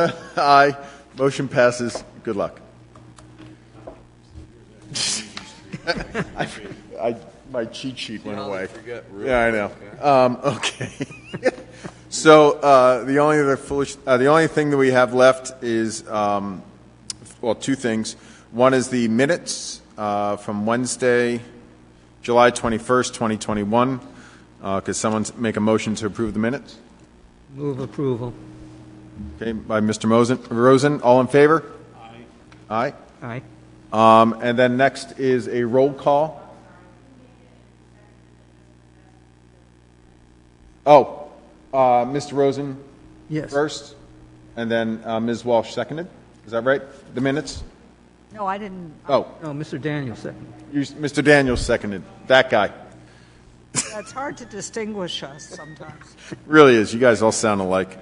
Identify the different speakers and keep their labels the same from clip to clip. Speaker 1: Aye. Motion passes. Good luck. I, I, my cheat sheet went
Speaker 2: how they
Speaker 1: away.
Speaker 2: forget rules,
Speaker 1: Yeah, I know. Um, okay. so uh, the only other foolish, uh, the only thing that we have left is, um, well, two things. One is the minutes uh, from Wednesday, July twenty first, twenty twenty one. Uh, could someone make a motion to approve the minutes?
Speaker 3: Move approval.
Speaker 1: Okay, by Mr. Mosen, Rosen, all in favor? Aye.
Speaker 3: Aye.
Speaker 1: Aye. Um, and then next is a roll call. Oh, uh, Mr. Rosen
Speaker 3: Yes.
Speaker 1: first, and then uh, Ms. Walsh seconded. Is that right? The minutes?
Speaker 4: No, I didn't.
Speaker 1: Oh,
Speaker 3: No, Mr. Daniel second.
Speaker 1: you, Mr. Daniels seconded. That guy.
Speaker 4: It's hard to distinguish us sometimes.
Speaker 1: Really is. You guys all sound alike.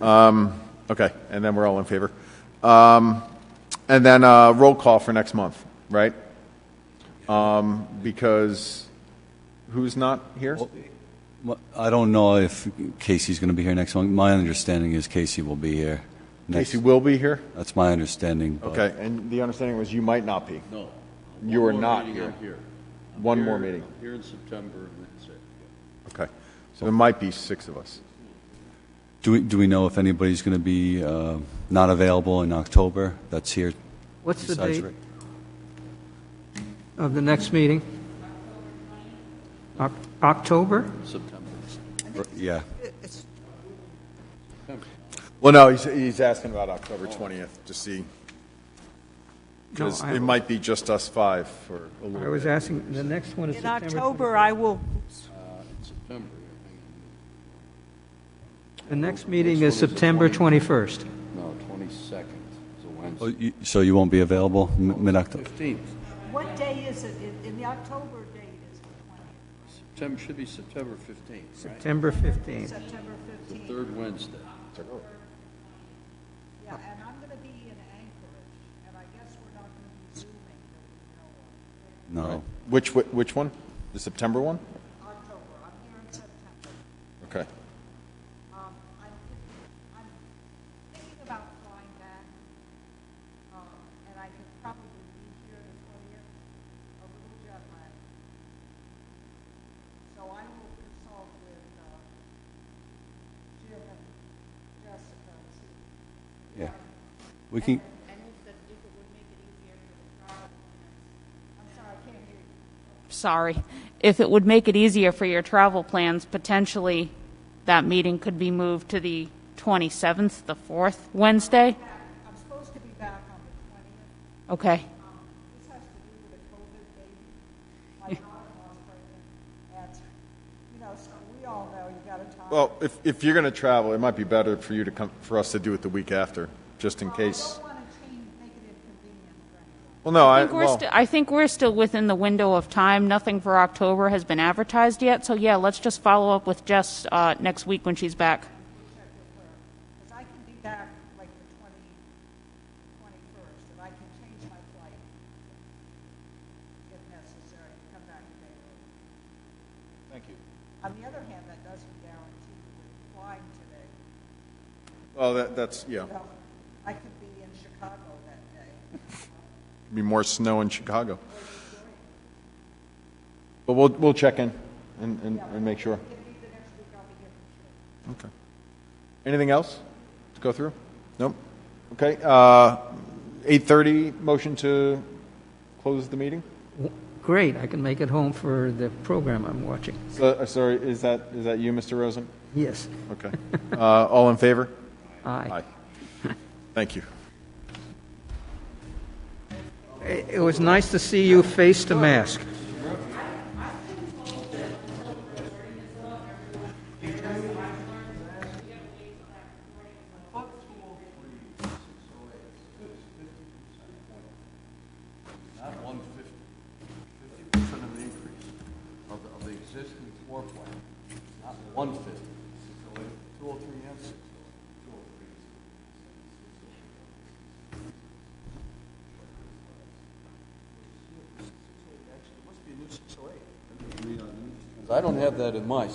Speaker 1: Um, okay, and then we're all in favor. Um, and then uh, roll call for next month, right? Um, because who's not here?
Speaker 5: Well, I don't know if Casey's going to be here next month. My understanding is Casey will be here. next-
Speaker 1: Casey will be here.
Speaker 2: Uh,
Speaker 5: That's my understanding. but-
Speaker 1: Okay, and the understanding was you might not be.
Speaker 2: No.
Speaker 1: You
Speaker 2: One
Speaker 1: are
Speaker 2: more
Speaker 1: not
Speaker 2: meeting, I'm
Speaker 1: here. One more
Speaker 2: Here-
Speaker 1: meeting.
Speaker 2: Here in September, and that's it.
Speaker 1: Okay, so there might be six of us.
Speaker 5: Do we, do we know if anybody's going to be uh, not available in October that's here?
Speaker 3: What's the
Speaker 5: besides
Speaker 3: date
Speaker 5: Rick?
Speaker 3: of the next meeting? Oc- October?
Speaker 2: September.
Speaker 5: R- Yeah.
Speaker 4: It's-
Speaker 1: Well, no, he's, he's asking about October
Speaker 2: Oh.
Speaker 1: 20th to see,
Speaker 3: No,
Speaker 1: because
Speaker 3: I-
Speaker 1: it might be just us five for a
Speaker 3: I
Speaker 1: little
Speaker 3: was
Speaker 1: bit.
Speaker 3: asking, the next one is
Speaker 4: In
Speaker 3: September.
Speaker 4: October, I will,
Speaker 2: In September, I think.
Speaker 3: 20th. The next meeting is
Speaker 2: Next one is the
Speaker 3: September
Speaker 2: 20th.
Speaker 3: 21st.
Speaker 2: No, 22nd is a
Speaker 5: Oh,
Speaker 2: Wednesday.
Speaker 5: you- So you won't be available m- mid-October?
Speaker 2: 15th.
Speaker 4: what day is it? In- In the October date is the 20th,
Speaker 2: September, should be September 15th, right?
Speaker 3: September 15th.
Speaker 4: September
Speaker 2: The
Speaker 4: 15th.
Speaker 2: third Wednesday.
Speaker 4: Yeah, and I'm going to be in Anchorage, and I guess we're not going to be Zooming. that we know of.
Speaker 5: No.
Speaker 1: Oh. Which, whi- which one? The September one?
Speaker 4: October, I'm here in September.
Speaker 1: Okay.
Speaker 4: Um, I'm, I'm thinking about flying back, um, and I could probably be here the twentieth, a little jet lag. So I will consult with, uh, Jim and Jessica and see.
Speaker 5: Yeah. We can,
Speaker 4: I'm sorry, I can't hear you.
Speaker 6: sorry, if it would make it easier for your travel plans, potentially that meeting could be moved to the 27th, the fourth Wednesday?
Speaker 4: I'm supposed to be back on the twentieth.
Speaker 6: Okay,
Speaker 4: This has to do with a COVID baby. My daughter-in-law's pregnant, and, you know, so we all know you gotta talk.
Speaker 1: Well, if, if you're going to travel, it might be better for you to come, for us to do it the week after, just in
Speaker 4: I
Speaker 1: case.
Speaker 4: don't wanna change, make it inconvenient for
Speaker 1: Well,
Speaker 4: anyone.
Speaker 1: no,
Speaker 6: I
Speaker 1: I,
Speaker 6: think we're
Speaker 1: well,
Speaker 6: sti- I think we're still within the window of time, nothing for October has been advertised yet, so yeah, let's just follow up with Jess uh, next week when she's back.
Speaker 4: Because I can be back like the 20, 21st, and I can change my flight if necessary, and come back a day early.
Speaker 2: Thank you.
Speaker 4: On the other hand, that doesn't guarantee we're flying today.
Speaker 1: well, that, that's, yeah,
Speaker 4: Well, I could be in Chicago that day.
Speaker 1: be more snow in Chicago. But we'll, we'll check in and, and, and make sure. Okay. Anything else to go through? Nope. Okay, uh, 8:30, motion to close the meeting?
Speaker 3: W- Great, I can make it home for the program I'm watching.
Speaker 1: So- uh, Sorry, is that, is that you, Mr. Rosen?
Speaker 3: Yes,
Speaker 1: Okay. Uh, all in favor?
Speaker 3: aye.
Speaker 1: Thank you.
Speaker 3: It it was nice to see you face to mask.
Speaker 2: Not 150, 50% of the increase of the, of the existing floor plan, not 150. 203 and 603. I don't have that in my.